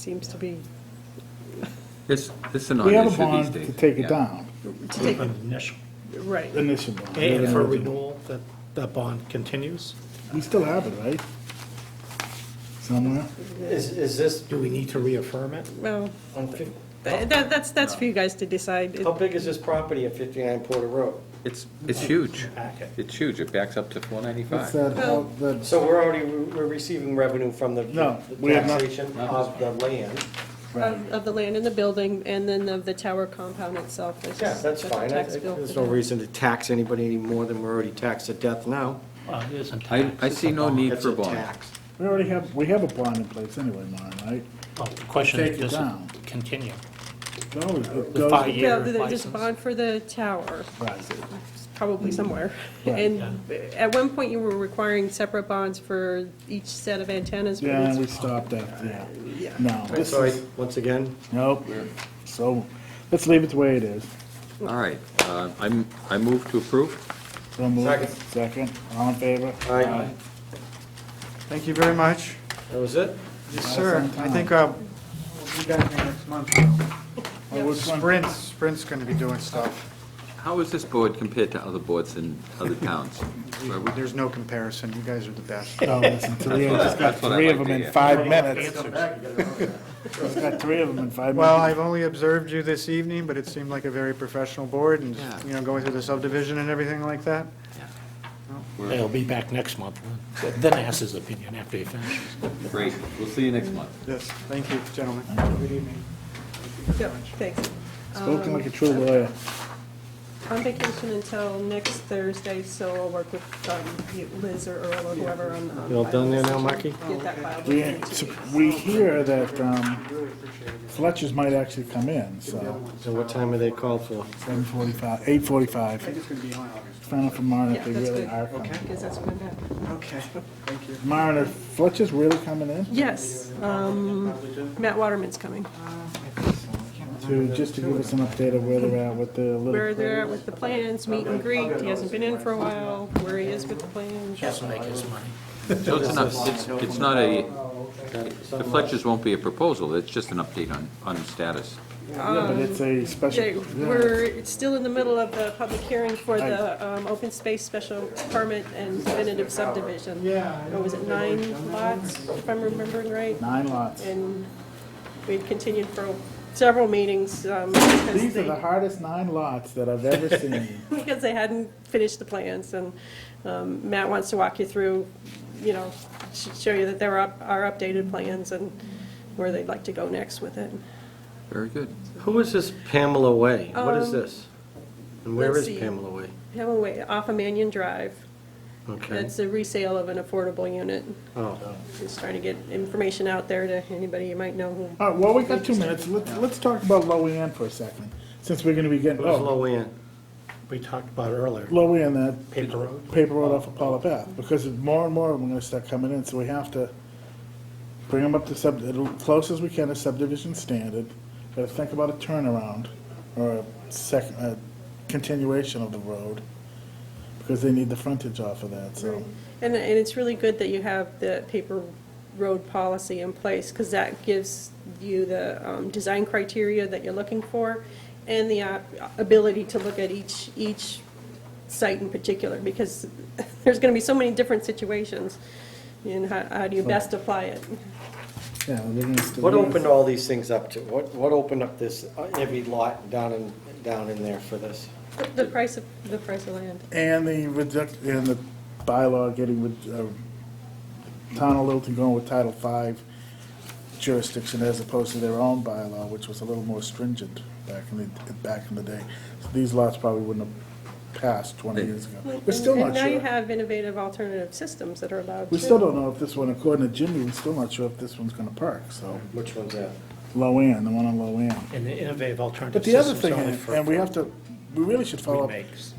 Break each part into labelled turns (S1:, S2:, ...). S1: Seems to be,
S2: It's, it's a
S3: We have
S2: non-issue
S3: a bond
S2: these days.
S3: to take
S2: Yeah.
S3: it down,
S1: to take,
S4: Initial.
S1: right,
S3: initial bond.
S4: And for renewal, that, that bond continues?
S3: We still have it, right? Somewhere?
S5: Is, is this,
S4: Do we need to reaffirm it?
S1: well,
S5: on fif-
S1: th- that, that's, that's for you guys to decide. It-
S5: how big is this property at 59 Porter Road?
S2: It's, it's huge.
S4: Packet.
S2: It's huge. It backs up to four
S3: What's
S2: ninety-five.
S3: that, how, that,
S5: So we're already, we're receiving revenue from the
S3: No,
S5: the
S3: we have not-
S5: taxation of the land.
S1: Of of the land and the building, and then of the tower compound itself. That's
S5: Yeah,
S1: just-
S5: that's
S1: a
S5: fine. I- I-
S1: tax bill
S5: There's
S1: for
S5: no
S1: that.
S5: reason to tax anybody any more than we're already taxed to death now.
S4: Well, Uh, it isn't
S2: I, I see no need
S5: That's
S2: for a
S5: a
S2: bond.
S5: tax.
S3: we already have, we have a bond in place anyway, Mine, right?
S4: Well, the question
S3: Take
S4: is,
S3: it
S4: does
S3: down.
S4: it continue?
S3: It always- it
S4: The
S3: goes-
S4: five-year
S1: Yeah, there's a
S4: license?
S1: bond for the tower,
S3: Right.
S5: Mm.
S1: probably somewhere.
S3: Right.
S1: And at one point, you were requiring separate bonds for each set of antennas. but
S3: Yeah,
S1: it's-
S3: we stopped at, yeah.
S1: Yeah.
S3: No,
S5: Right,
S3: this
S5: So I-
S3: is,
S5: once again,
S3: nope, so, let's leave it the way it is.
S2: All right, uh, I'm, I move to approve.
S3: So move.
S5: Second.
S3: Second, all in favor?
S5: I,
S6: Thank you very much.
S5: that was it.
S6: Yes, sir. I think uh, we'll be back next month.
S3: Oh, which one?
S6: Sprint's, Sprint's going to be doing stuff.
S2: How is this board compared to other boards in other towns? Are we-
S6: There's no comparison. You guys are the best.
S3: No, listen, Talia just got
S2: That's what I
S3: three of
S2: like
S3: them
S2: to
S3: in
S2: hear.
S3: five minutes. She's got three of them in five minutes.
S6: Well, I've only observed you this evening, but it seemed like a very professional board and,
S2: Yeah.
S6: you know, going through the subdivision and everything like that.
S4: They'll be back next month, then ask his opinion after he finishes.
S2: Great, we'll see you next month.
S6: Yes, thank you, gentlemen. Good evening.
S1: Yeah, Thanks.
S3: Spoken like a true lawyer.
S1: On vacation until next Thursday, so I'll work with um, you- Liz or Earl or whoever on. on
S5: You all done there now, Marky?
S1: Get that filed.
S3: We,
S1: within two weeks.
S3: we hear that um, Fletcher's might actually come in, so
S5: So what time are they called for?
S3: seven forty-five, eight forty-five. Find out from Maren if they
S1: Yeah, that's
S3: really
S1: good.
S3: are coming.
S1: Because that's when that.
S6: Okay, Hmm. thank you.
S3: Maren, are Fletcher's really coming in
S1: Yes, um, Matt Waterman's coming.
S3: to, just to give us an update of where they're at with the
S1: Where
S3: little,
S1: they're at with the plans, meet and greet, he hasn't been in for a while, where he is with the plans.
S4: Just make his money.
S2: So it's not, it's, it's not a, the Fletchers won't be a proposal, it's just an update on, on status.
S3: but it's a special.
S1: They-
S3: yeah.
S1: We're it's still in the middle of the public hearing for the um, open space special permit and definitive subdivision. Yeah. What was it, nine lots, if I'm remembering right?
S3: Nine lots.
S1: And we continued for several meetings um, because
S3: These are the
S1: they,
S3: hardest nine lots that I've ever seen.
S1: because they hadn't finished the plans. And um, Matt wants to walk you through, you know, sh- show you that there are are updated plans and where they'd like to go next with it.
S2: Very good.
S5: Who is this Pamela Way? What is
S1: Um,
S5: this? And where
S1: let's
S5: is
S1: see.
S5: Pamela Way?
S1: Hemingway, off of Mannion Drive.
S5: Okay.
S1: That's a resale of an affordable unit.
S5: Oh,
S1: Just trying to get information out there to anybody you might know who.
S3: All right, well, we got two minutes. Let's, let's talk about Lowen for a second, since we're gonna be getting,
S5: who's
S3: oh,
S5: Loanne?
S4: We talked about earlier,
S3: Lowen, that
S4: paper road.
S3: paper road off of Paula Path, because more and more of them are gonna start coming in, so we have to bring them up to sub, as close as we can to subdivision standard, gotta think about a turnaround, or a second, a continuation of the road, because they need the frontage off of that, so.
S1: And, and it's really good that you have the paper road policy in place, because that gives you the um, design criteria that you're looking for, and the uh, ability to look at each, each site in particular, because there's going to be so many different situations, and how, how do you best apply it?
S3: Yeah, they're gonna still-
S5: What opened all these things up to? What, what opened up this, uh, every lot down in, down in there for this?
S1: The- The price of, the price of land.
S3: And the reduct, and the bylaw getting with, uh, Town of Littleton going with Title V jurisdiction as opposed to their own bylaw, which was a little more stringent back in the, back in the day. So These lots probably wouldn't have passed twenty years ago. We're still
S1: And
S3: not
S1: now you
S3: sure.
S1: have innovative alternative systems that are allowed.
S3: We
S1: too.
S3: still don't know if this one, according to Jimmy, we're still not sure if this one's gonna park, so.
S5: Which one's uh, that?
S3: Low end, the one on low end.
S4: And the innovative alternative
S3: But the other
S4: systems
S3: thing,
S4: only
S3: is-
S4: for
S3: and we have to, we really should follow up
S4: remakes.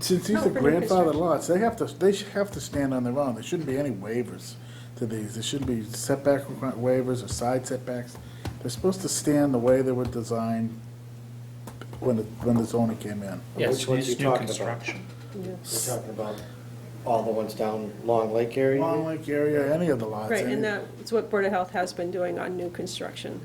S3: Since these
S1: No,
S3: are
S1: for new
S3: grandfathered
S1: construction.
S3: lots, they have to, they should have to stand on their own. There shouldn't be any waivers to these. There shouldn't be setback requi- waivers or side setbacks. They're supposed to stand the way they were designed when, the- when the zoning came in.
S4: Yes,
S5: Which ones
S4: it's
S5: you
S4: new
S5: talking about?
S4: construction.
S1: Yeah.
S5: We're talking about all the ones down Long Lake area?
S3: Long Lake area, any of the lots.
S1: Right,
S3: any-
S1: and that's what Board of Health has been doing on new construction.